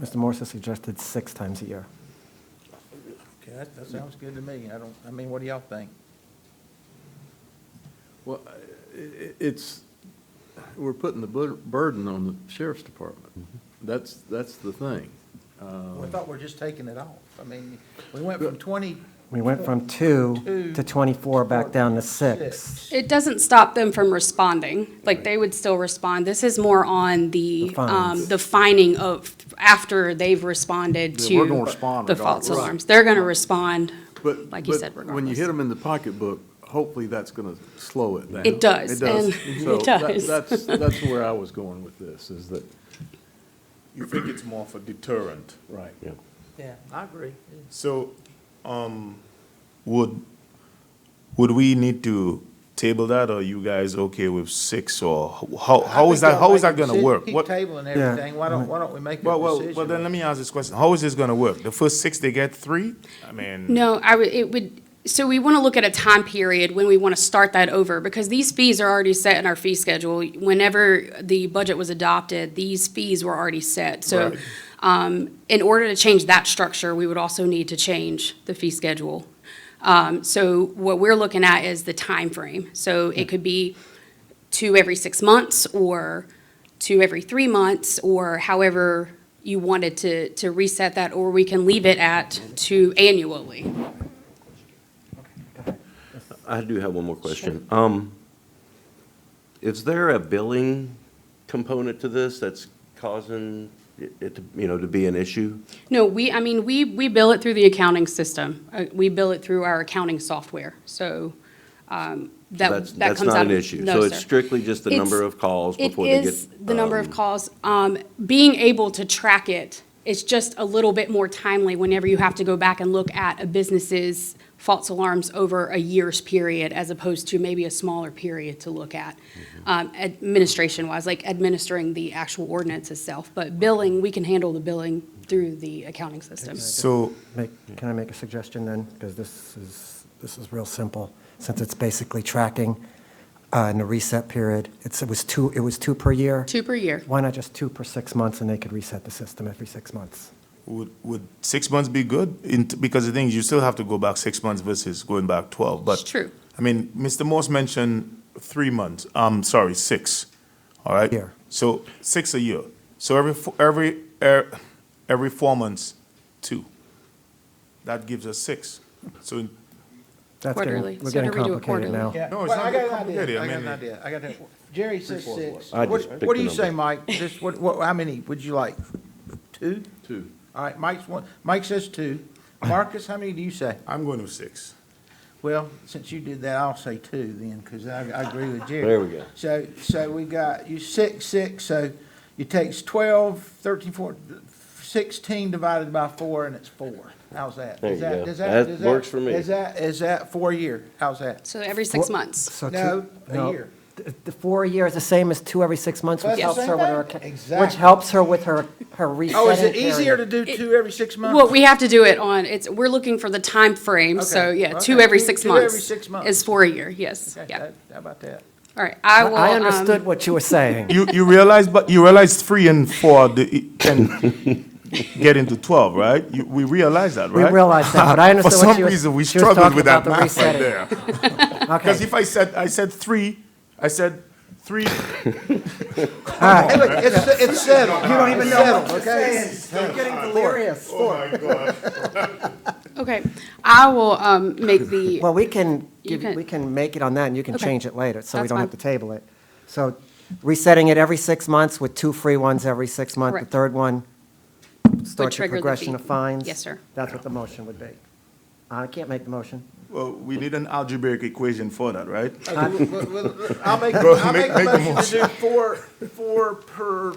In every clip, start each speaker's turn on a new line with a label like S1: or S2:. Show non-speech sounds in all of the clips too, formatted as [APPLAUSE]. S1: Mr. Morse has suggested six times a year.
S2: Okay, that, that sounds good to me. I don't, I mean, what do y'all think?
S3: Well, i- i- it's, we're putting the bur- burden on the sheriff's department. That's, that's the thing.
S2: I
S4: Um,
S2: thought we're just taking it off. I mean, we went from twenty.
S1: We went from two to 24, back down to six.
S2: six.
S5: It doesn't stop them from responding. Like, they would still respond. This is more on
S1: The
S5: the, um,
S1: fines.
S5: the fining of, after they've responded
S3: Yeah, we're
S5: to
S3: gonna respond
S5: the false
S3: regardless.
S5: alarms. They're gonna respond.
S3: But-
S5: Like you said,
S3: But when you hit
S5: regardless.
S3: them in the pocketbook, hopefully that's going to slow it down.
S5: It does, and- [LAUGHS]
S3: So
S5: it
S3: that-
S5: does.
S3: That's, that's where I was going with this, is that,
S4: You think it's more of a deterrent.
S3: right.
S2: Yeah, I agree.
S4: So, um, would, would we need to table that, or you guys okay with six, or how, how is that, how is that gonna work?
S2: Keep
S4: What-
S2: tabling everything. Why don't, why don't we make a
S4: Well, well, well, then
S2: decision?
S4: let me ask this question, how is this gonna work? The first six, they get three? I mean.
S5: No, I would, it would, so we want to look at a time period when we want to start that over, because these fees are already set in our fee schedule. Whenever the budget was adopted, these fees were already set. So,
S4: Right.
S5: um, in order to change that structure, we would also need to change the fee schedule. Um, so what we're looking at is the time frame. So it could be two every six months, or two every three months, or however you wanted to, to reset that, or we can leave it at two annually.
S6: I do have one more question. Um, is there a billing component to this that's causing it- it, to, you know, to be an issue?
S5: No, we, I mean, we, we bill it through the accounting system. Uh, We bill it through our accounting software, so um,
S6: That's-
S5: that, that
S6: that's
S5: comes
S6: not
S5: out of.
S6: an issue.
S5: No,
S6: So it's
S5: sir.
S6: strictly just the
S5: It's-
S6: number of calls before they
S5: It is
S6: get,
S5: the number of
S6: um,
S5: calls. Um, Being able to track it, it's just a little bit more timely whenever you have to go back and look at a business's false alarms over a year's period as opposed to maybe a smaller period to look at, um, administration-wise, like administering the actual ordinance itself. But billing, we can handle the billing through the accounting system.
S4: So,
S1: Make, can I make a suggestion then? Because this is, this is real simple, since it's basically tracking uh, in the reset period. It's, it was two, it was two per year.
S5: Two per year.
S1: Why not just two per six months, and they could reset the system every six months?
S4: would, would six months be good? In, because the thing is, you still have to go back six months versus going back twelve, but.
S5: It's true.
S4: I mean, Mr. Morse mentioned three months, um, sorry, six, all right?
S1: Year.
S4: So, six a year. So every, fo- every, er, every four months, two. That gives us six. So, in-
S1: That's getting-
S5: Quarterly.
S1: We're
S5: So
S1: getting
S5: do we do it
S1: complicated now.
S2: Yeah,
S4: No,
S2: well,
S4: it's
S2: I
S4: not
S2: got an
S4: complicated.
S2: idea.
S4: I
S2: I got an
S4: mean,
S2: idea. I got an, Jerry says six.
S6: I
S2: What,
S6: just
S2: what
S6: picked
S2: do
S6: a
S2: you say,
S6: number.
S2: Mike? Just, what, what, how many would you like? Two?
S3: Two.
S2: All right, Mike's one, Mike says
S4: [CLEARS THROAT]
S2: two. Marcus, how many do you say?
S4: I'm going with six.
S2: Well, since you did that, I'll say two then, because I, I agree with Jerry.
S6: There we go.
S2: So, so we got, you six, six, so you takes twelve, thirteen, four, sixteen divided by four, and it's four. How's that?
S6: There
S2: Is
S6: you
S2: that-
S6: go.
S2: does
S6: That
S2: does
S6: works for me.
S2: Is that, is that four year? How's that?
S5: So every six
S1: Four-
S5: months.
S1: So two-
S2: No, a
S1: no.
S2: year.
S1: Th- The four a year is the same as two every six months,
S2: That's
S1: which
S2: the
S1: helps
S2: same
S1: her with
S2: thing?
S1: her, acc- which
S2: Exactly.
S1: helps her with her, her resetting
S2: Oh, is it easier to
S1: period.
S2: do two every six months?
S5: Well, we have to do it on, it's, we're looking for the time frame. so
S2: Okay,
S5: yeah, two
S2: okay.
S5: every
S2: Two-
S5: six
S2: two
S5: months.
S2: every six months.
S5: Is four a year, yes,
S2: Okay,
S5: yeah.
S2: that- How about that?
S5: All right, I will.
S1: I
S5: um,
S1: understood what you were
S5: [LAUGHS]
S1: saying.
S4: You, you realize, but you realize three and four the, e, can get into twelve, right? You, we realize that,
S1: We
S4: right?
S1: realized that, but I
S4: [LAUGHS] For
S1: understood what
S4: some
S1: she was.
S4: reason, we
S1: she was
S4: struggled
S1: talking
S4: with
S1: about
S4: that
S1: the
S4: math right
S1: resetting.
S4: there. Because
S1: Okay,
S4: if I said, I said three, I said three, [LAUGHS]
S2: Hey, look, it's, it's settled. You don't even know what okay?
S1: getting delirious.
S5: um, Okay, I will, um, make the,
S1: [LAUGHS] Well, we can,
S5: You
S1: give-
S5: can-
S1: we can make it on that, and you can
S5: Okay.
S1: change it later, so we
S5: That's
S1: don't have to
S5: fine.
S1: table it. So resetting it every six months with two free ones every six months. The
S5: Correct.
S1: third one starts the
S5: trigger the
S1: progression
S5: fee.
S1: of fines.
S5: Yes, sir.
S1: That's what the motion would be. Uh, I can't make the motion.
S4: well, we need an algebraic equation for that, right?
S2: Okay, well, well, well, I'll make,
S4: Go
S2: I'll
S4: make-
S2: make a
S4: make a
S2: motion to do four, four per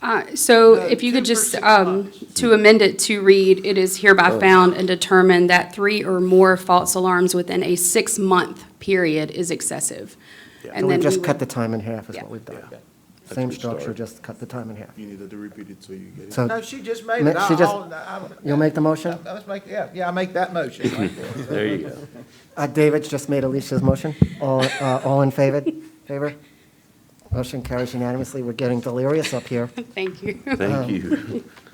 S5: uh, so
S2: No,
S5: if you could
S2: two for
S5: just,
S2: six
S5: um, to amend it to read, it is
S1: Oh.
S5: hereby found and determined that three or more false alarms within a six-month period is excessive.
S1: And we've
S5: then we
S1: just cut
S5: would-
S1: the time in half is
S5: Yeah.
S1: what we've done.
S6: That's
S1: Same
S6: a good start.
S1: structure, just cut the time in half.
S4: You needed to repeat it so you get it.
S1: So
S2: No, she just made
S1: Ma-
S2: it. I-
S1: she just-
S2: I'll- I'll-
S1: you'll make the motion?
S2: Let's make, yeah, yeah, I make that motion. right there.
S6: There you go.
S1: Uh, David's just made Alicia's motion. All, uh, all in favor? Favor? Motion carries unanimously. We're getting delirious up here.
S5: [LAUGHS] Thank you.
S6: [LAUGHS] Thank you.